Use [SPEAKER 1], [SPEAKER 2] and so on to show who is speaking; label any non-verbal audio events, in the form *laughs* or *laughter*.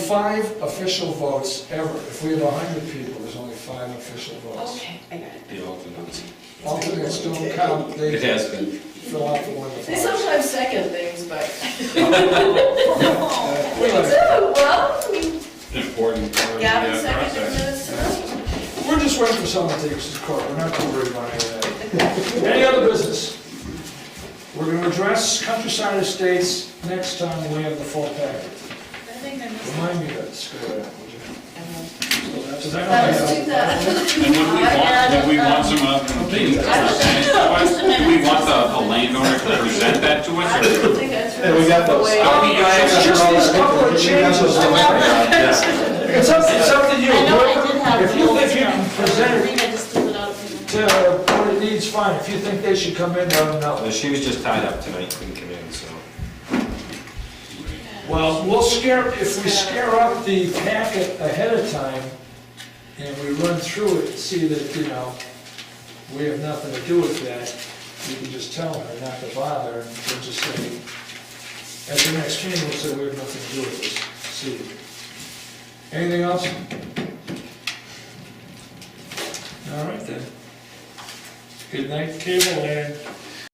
[SPEAKER 1] five official votes ever. If we had hundred people, there's only five official votes.
[SPEAKER 2] Okay, I got it.
[SPEAKER 3] The alternates.
[SPEAKER 1] Alternates don't count, they
[SPEAKER 3] It has been.
[SPEAKER 1] fill out the one. that
[SPEAKER 2] They
[SPEAKER 1] votes.
[SPEAKER 2] sometimes second things, but.
[SPEAKER 1] Uh,
[SPEAKER 2] They do,
[SPEAKER 1] wait a minute.
[SPEAKER 2] well, I mean,
[SPEAKER 3] Important part of
[SPEAKER 2] Gavin
[SPEAKER 3] that
[SPEAKER 2] seconded the
[SPEAKER 3] process.
[SPEAKER 2] minutes tonight.
[SPEAKER 1] We're just waiting for someone to take us to court, we're not too worried about any of that.
[SPEAKER 2] *laughs*
[SPEAKER 1] Any other business? We're gonna address countryside estates next time we have the full packet.
[SPEAKER 2] I think I missed.
[SPEAKER 1] Remind me of that, screw that, would you? Does
[SPEAKER 2] Uh-huh. That was
[SPEAKER 1] that
[SPEAKER 2] two thousand.
[SPEAKER 3] And would we want, would we want some of the things to present to us? Do we want the the landowner to present that to
[SPEAKER 2] I
[SPEAKER 3] us? or-
[SPEAKER 2] don't think I threw.
[SPEAKER 4] Hey, we got those.
[SPEAKER 2] away.
[SPEAKER 3] I'll be
[SPEAKER 1] It's just these couple of changes. It's up, it's up to you.
[SPEAKER 5] I know I did have.
[SPEAKER 1] If you think you can present it
[SPEAKER 5] I just took it out of people.
[SPEAKER 1] to what it needs, fine, if you think they should come in, let them know.
[SPEAKER 6] Uh, She was just tied up tonight, couldn't come in, so.
[SPEAKER 1] Well, we'll scare, if we scare up the packet ahead of time, and we run through it, see that, you know, we have nothing to do with that, we can just tell her not to bother, and we'll just say, at the next meeting, we'll say we have nothing to do with this, see. Anything else? All right then. Good night, cable land.